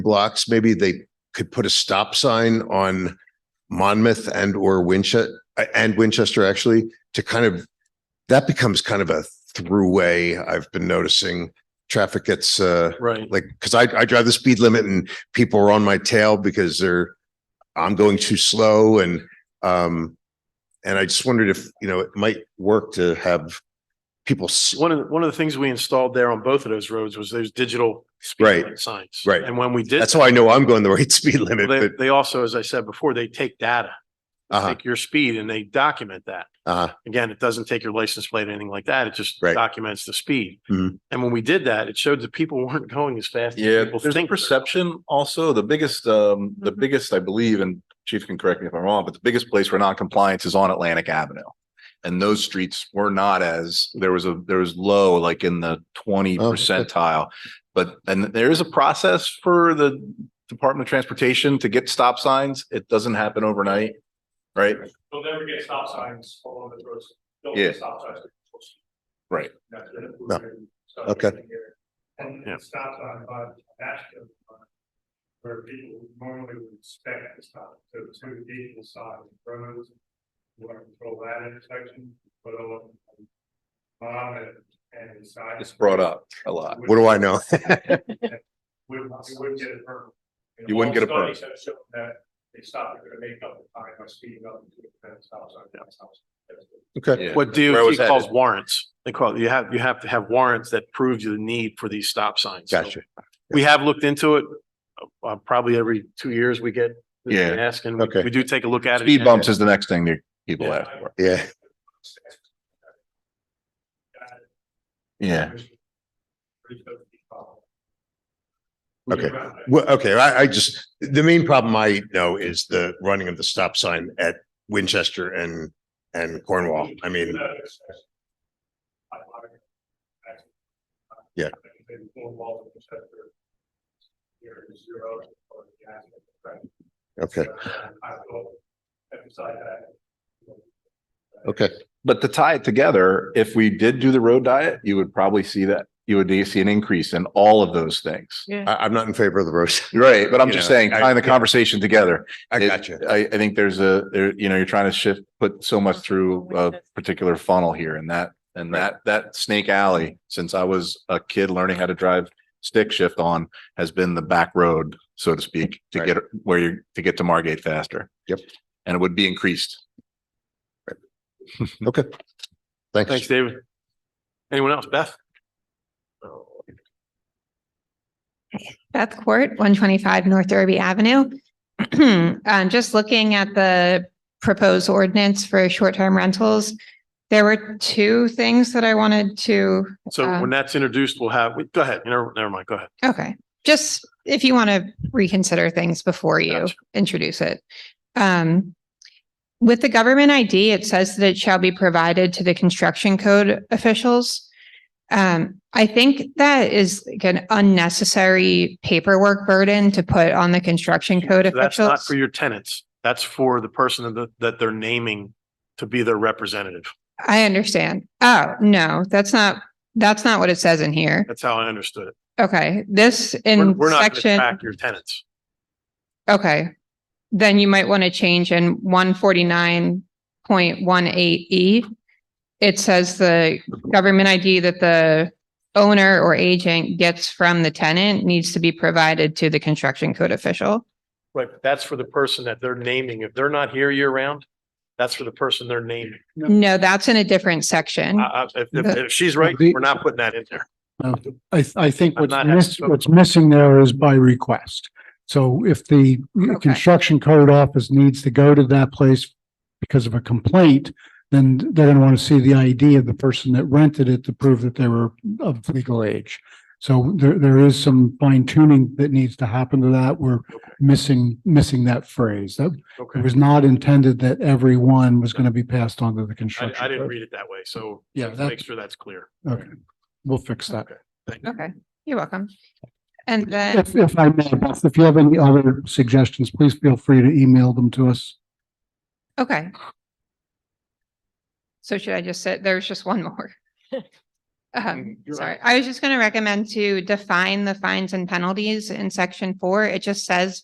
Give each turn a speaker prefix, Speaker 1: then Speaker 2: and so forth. Speaker 1: blocks, maybe they could put a stop sign on Monmouth and or Winchester and Winchester actually to kind of that becomes kind of a throughway. I've been noticing traffic gets uh
Speaker 2: Right.
Speaker 1: like because I I drive the speed limit and people are on my tail because they're I'm going too slow and um and I just wondered if you know it might work to have people s-
Speaker 2: One of, the- one of the things we installed there on both of those roads was those digital speed
Speaker 1: Right.
Speaker 2: limit signs.
Speaker 1: Right.
Speaker 2: And when we did.
Speaker 1: that's how I know I'm going the right speed limit.
Speaker 2: They,
Speaker 1: But
Speaker 2: they also, as I said before, they take data, They
Speaker 1: uh-huh,
Speaker 2: take your speed and they document that.
Speaker 1: uh-huh,
Speaker 2: Again, it doesn't take your license plate or anything like that. It just
Speaker 1: Right.
Speaker 2: documents the speed.
Speaker 1: Mhm.
Speaker 2: And when we did that, it showed that people weren't going as fast. as
Speaker 3: Yeah,
Speaker 2: people
Speaker 3: there's a
Speaker 2: think.
Speaker 3: perception also, the biggest, um,
Speaker 1: Mm-hmm.
Speaker 3: the biggest, I believe, and chief can correct me if I'm wrong, but the biggest place where non-compliance is on Atlantic Avenue. And those streets were not as, there was a, there was low, like in the twenty
Speaker 1: Oh, okay.
Speaker 3: percentile. But, and there is a process for the Department of Transportation to get stop signs. It doesn't happen overnight, right?
Speaker 4: They'll never get stop signs along the roads. They'll
Speaker 3: Yeah.
Speaker 4: get stop signs.
Speaker 3: Right.
Speaker 4: That's it.
Speaker 1: No.
Speaker 4: So,
Speaker 1: Okay.
Speaker 4: And
Speaker 2: Yeah.
Speaker 4: the stop sign by the Ashton. line, Where people normally would expect to stop, so two equal side roads. You want to control that intersection, but on. On it and the side.
Speaker 3: It's brought up a lot.
Speaker 1: What do I know?
Speaker 4: Wouldn't, you wouldn't get a permit. And
Speaker 3: You wouldn't
Speaker 4: all
Speaker 3: get a permit.
Speaker 4: studies have shown That they stop, they're gonna make up the time by speeding up. and doing that stop sign, that stop sign.
Speaker 1: Okay.
Speaker 3: Yeah.
Speaker 2: What
Speaker 3: Where I
Speaker 2: DOT
Speaker 3: was
Speaker 2: calls
Speaker 3: headed.
Speaker 2: warrants. They call, you have, you have to have warrants that prove you the need for these stop signs. So
Speaker 1: Gotcha.
Speaker 2: We have looked into it. Uh, probably every two years we get. we
Speaker 3: Yeah.
Speaker 2: Ask and we-
Speaker 1: Okay.
Speaker 2: we do take a look at it.
Speaker 3: Speed bumps is the next thing that people ask for.
Speaker 1: Yeah.
Speaker 3: Yeah.
Speaker 1: Okay. Well, okay, I, I just, the main problem I know is the running of the stop sign at Winchester and, and Cornwall. I mean, Yeah. okay, okay,
Speaker 3: But to tie it together, if we did do the road diet, you would probably see that, you would see an increase in all of those things.
Speaker 1: I, I'm not in favor of the road.
Speaker 3: Right, but I'm just
Speaker 1: You know,
Speaker 3: saying,
Speaker 1: I-
Speaker 3: tying the conversation together.
Speaker 1: I
Speaker 3: It-
Speaker 1: got you.
Speaker 3: I, I think there's a, there, you know, you're trying to shift, put so much through uh, a particular funnel here and that, and that, that snake alley, since I was a kid learning how to drive stick shift on, has been the back road, so to speak, to
Speaker 1: Right.
Speaker 3: get where you're, to get to Margate faster.
Speaker 1: Yep.
Speaker 3: And it would be increased.
Speaker 1: Okay.
Speaker 2: Thanks,
Speaker 1: Thanks.
Speaker 2: David. Anyone else? Beth?
Speaker 5: Beth Court, one twenty-five North Derby Avenue. Um, just looking at the proposed ordinance for short-term rentals, there were two things that I wanted to,
Speaker 2: So
Speaker 5: Uh,
Speaker 2: when that's introduced, we'll have, we- go ahead. Never, never mind. Go ahead.
Speaker 5: okay, just if you want to reconsider things before you
Speaker 2: Gotcha.
Speaker 5: introduce it. Um, with the government ID, it says that it shall be provided to the construction code officials. Um, I think that is like an unnecessary paperwork burden to put on the construction code
Speaker 2: So That's not
Speaker 5: officials.
Speaker 2: for your tenants. That's for the person that, that they're naming to be their representative.
Speaker 5: I understand. Oh, no, that's not, that's not what it says in here.
Speaker 2: That's how I understood it.
Speaker 5: Okay, this
Speaker 2: We're
Speaker 5: in
Speaker 2: we're not going to
Speaker 5: section,
Speaker 2: track your tenants.
Speaker 5: okay. Then you might want to change in one forty-nine point one eight E. It says the government ID that the owner or agent gets from the tenant needs to be provided to the construction code official.
Speaker 2: Right. but That's for the person that they're naming. If they're not here year round, that's for the person they're naming.
Speaker 5: No, that's in a different section.
Speaker 2: I- I- If, if if she's right,
Speaker 6: The-
Speaker 2: we're not putting that in there.
Speaker 6: I, th- I think
Speaker 2: I'm
Speaker 6: what's
Speaker 2: not having
Speaker 6: miss-
Speaker 2: trouble.
Speaker 6: what's missing there is by request. So if the
Speaker 5: Okay.
Speaker 6: construction code office needs to go to that place because of a complaint, then they're going to want to see the ID of the person that rented it to prove that they were of legal age. So there, there is some fine tuning that needs to happen to that. We're missing, missing that phrase. That it
Speaker 2: Okay.
Speaker 6: was not intended that everyone was going to be passed on to the
Speaker 2: I,
Speaker 6: construction.
Speaker 2: I didn't
Speaker 6: code.
Speaker 2: read it that way. So
Speaker 6: Yeah,
Speaker 2: make
Speaker 6: that's,
Speaker 2: sure that's clear.
Speaker 6: okay. We'll fix that.
Speaker 5: Okay, you're welcome. And then.
Speaker 6: If, if I may, Beth, if you have any other suggestions, please feel free to email them to us.
Speaker 5: Okay. So should I just say, there's just one more. Um, sorry, I was just gonna recommend to define the fines and penalties in section four. It just says